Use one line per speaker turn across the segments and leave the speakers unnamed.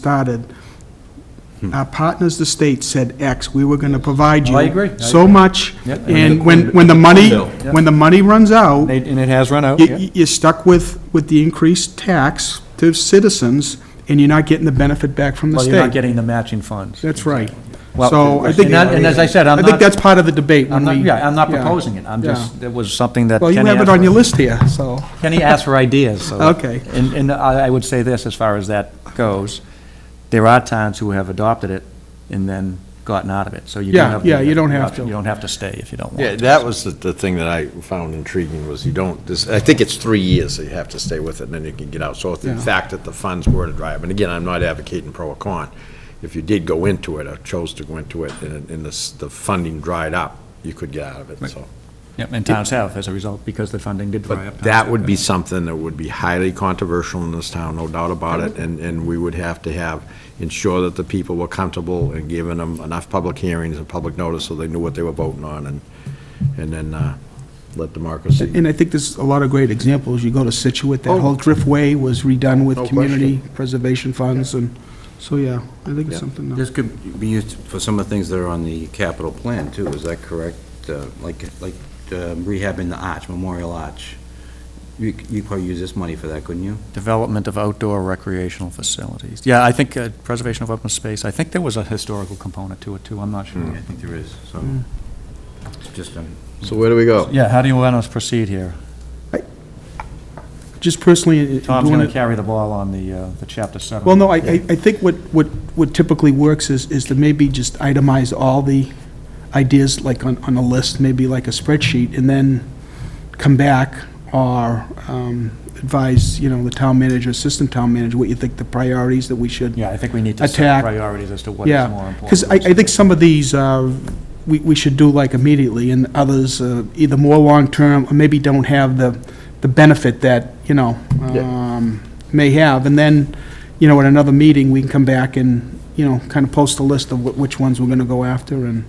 started, our partners, the state, said X, we were going to provide you.
Oh, I agree. I
So
agree.
much,
Yeah.
and when, when the money,
Bill. Yeah.
when the money runs out,
And it- and it has run out, yeah.
you- you're stuck with, with the increased tax to citizens, and you're not getting the benefit back from the
Well,
state.
you're not getting the matching funds.
That's right.
Well,
So I think.
and I- and as I said, I'm
I
not-
think that's part of the debate
I'm
when
not,
we.
yeah, I'm not
yeah,
proposing it, I'm
yeah.
just, it was something that.
Well, you
Kenny
have it
asked
on your
for.
list here, so.
Kenny asked for ideas, so.
Okay.
And, and I I would say this, as far as that goes, there are towns who have adopted it and then gotten out of it, so you do
Yeah,
have. the-
yeah, you don't have
option.
to.
You don't have to stay if you don't want.
Yeah,
to.
that was the, the thing that I found intriguing was you don't, this, I think it's three years that you have to stay with it and then you can get out. So if the
Yeah.
fact that the funds were to drive, and again, I'm not advocating pro or con. If you did go into it or chose to go into it and, and this, the funding dried up, you could get out of it, so.
Yeah, And towns have as a result, because the funding did dry up.
But that would be something that would be highly controversial in this town, no doubt about it, and, and we would have to have, ensure that the people were comfortable and giving them enough public hearings and public notice so they knew what they were voting on, and, and then, uh, let democracy.
And I think there's a lot of great examples. You go to Situate, that
Oh.
whole Driftway was redone with
No
community preservation funds, and, so, yeah, I think it's something. that-
This could be used for some of the things that are on the capital plan, too, is that correct? Uh, Like, like uh, rehabbing the arch, Memorial Arch. You c- you probably use this money for that, couldn't you?
Development of outdoor recreational facilities. Yeah, I think uh, preservation of open space, I think there was a historical component to it, too, I'm not sure.
I think there is, so. It's just, um,
So where do we go?
Yeah, how do you want us to proceed here?
Just personally, uh,
Tom's
doing
going
it-
to carry the ball on the, uh, the chapter seven.
Well, no, I, I I think what, what what typically works is, is to maybe just itemize all the ideas, like on, on a list, maybe like a spreadsheet, and then come back or um, advise, you know, the town manager, assistant town manager, what you think the priorities that we should.
Yeah, I think we need to set
Attack.
priorities as to what is more
Yeah,
important.
because I, I think some of these, uh, we, we should do like immediately, and others, uh, either more long-term, or maybe don't have the, the benefit that, you know, um, may have, and then, you know, at another meeting, we can come back and, you know, kind of post a list of wh- which ones we're gonna go after, and,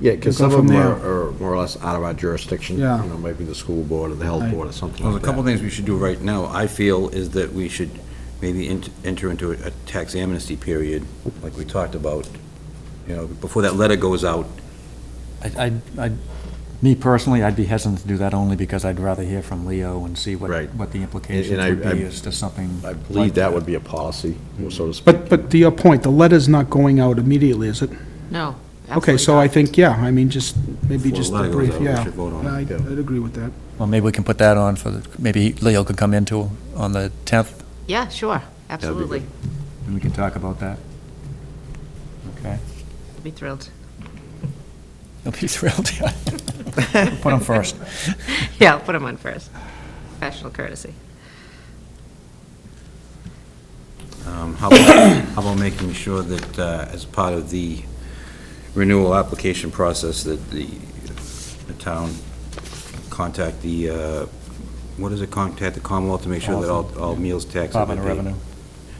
Yeah, because
We'll
some
go from
of them are are more or less out of our jurisdiction.
Yeah.
You know, maybe the school board or the health
Right.
board or something
well,
like
there's
that.
a couple of things we should do right now, I feel, is that we should maybe ent- enter into a a tax amnesty period, like we talked about, you know, before that letter goes out.
I, I, me personally, I'd be hesitant to do that only because I'd rather hear from Leo and see what,
Right.
what the implications
And I-
would be
I-
as to something.
I
like
believe that would be a policy, so to speak.
but, but to your point, the letter's not going out immediately, is it?
No.
Okay,
absolutely
so
not.
I think, yeah, I mean, just, maybe
Before
just
the
a
letter goes
brief,
out, we
yeah.
should vote on it.
I'd, I'd agree with that.
Well, maybe we can put that on for, the maybe Leo could come into on the 10th,
Yeah, sure, absolutely.
and we can talk about that. Okay.
Be thrilled.
He'll be thrilled, yeah. Put him first.
Yeah, I'll put them on first. Professional courtesy.
Um, How about how about making sure that uh, as part of the renewal application process, that the the town contact the, uh, what is it, contact the Commonwealth to make sure that all all meals tax have
Department
been
of
paid?
Revenue.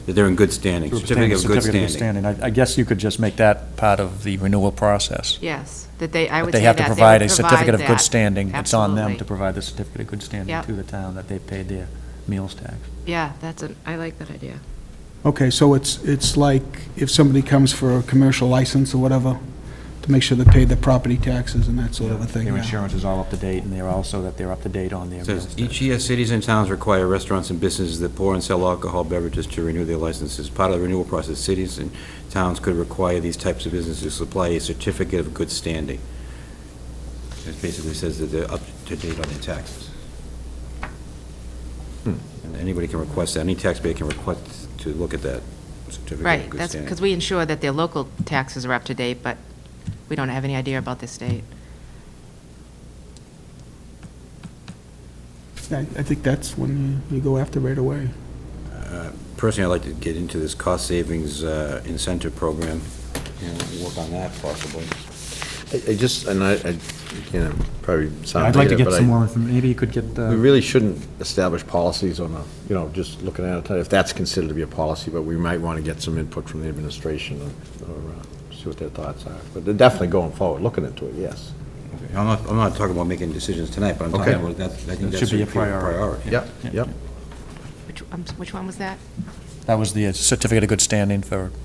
That they're in good standing, certificate of good
Certificate of
standing.
I I guess you could just make that part of the renewal process.
Yes, that they, I
But
would say
They
that.
have to provide a
would
certificate of good
that.
standing. It's on them to
Absolutely.
provide the certificate of good standing
Yep.
to the town that they paid their meals tax.
Yeah, that's an, I like that idea.
Okay, so it's, it's like if somebody comes for a commercial license or whatever, to make sure they pay their property taxes and that sort of a thing,
Their
yeah.
insurance is all up to date, and they're also that they're up to date on their
It
meals
Says,
tax.
each year, cities and towns require restaurants and businesses that pour and sell alcohol beverages to renew their licenses. Part of the renewal process, cities and towns could require these types of businesses to supply a certificate of good standing. It basically says that they're up to date on their taxes. And anybody can request that, any taxpayer can request to look at that certificate
Right,
of good
that's,
standing.
because we ensure that their local taxes are up to date, but we don't have any idea about the state.
I, I think that's when you, you go after right away.
Uh, Personally, I'd like to get into this cost savings uh, incentive program, and work on that possibly.
I I just, and I, I, you know, probably sound
I'd like to
negative,
get
but
some
I,
more, inform- maybe you could get,
we
uh,
really shouldn't establish policies on a, you know, just looking at it, if that's considered to be a policy, but we might want to get some input from the administration or, or uh, see what their thoughts are. But they're definitely going forward, looking into it, yes.
I'm not, I'm not talking about making decisions tonight, but I'm talking
Okay.
about that, I think
It
that
should be a priority.
priority.
Yep, yep.
Which, um, which one was that?
That was the certificate of good standing for